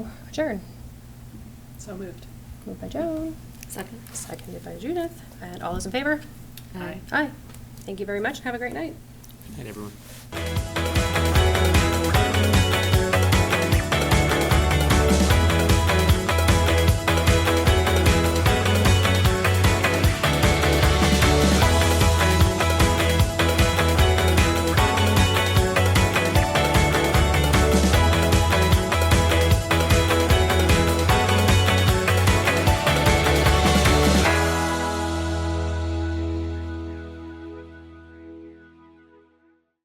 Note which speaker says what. Speaker 1: Adjourn.
Speaker 2: So moved.
Speaker 1: Moved by Joan,
Speaker 3: Second.
Speaker 1: seconded by Judith, and all those in favor?
Speaker 3: Aye.
Speaker 1: Aye. Thank you very much, and have a great night.
Speaker 4: Good night, everyone.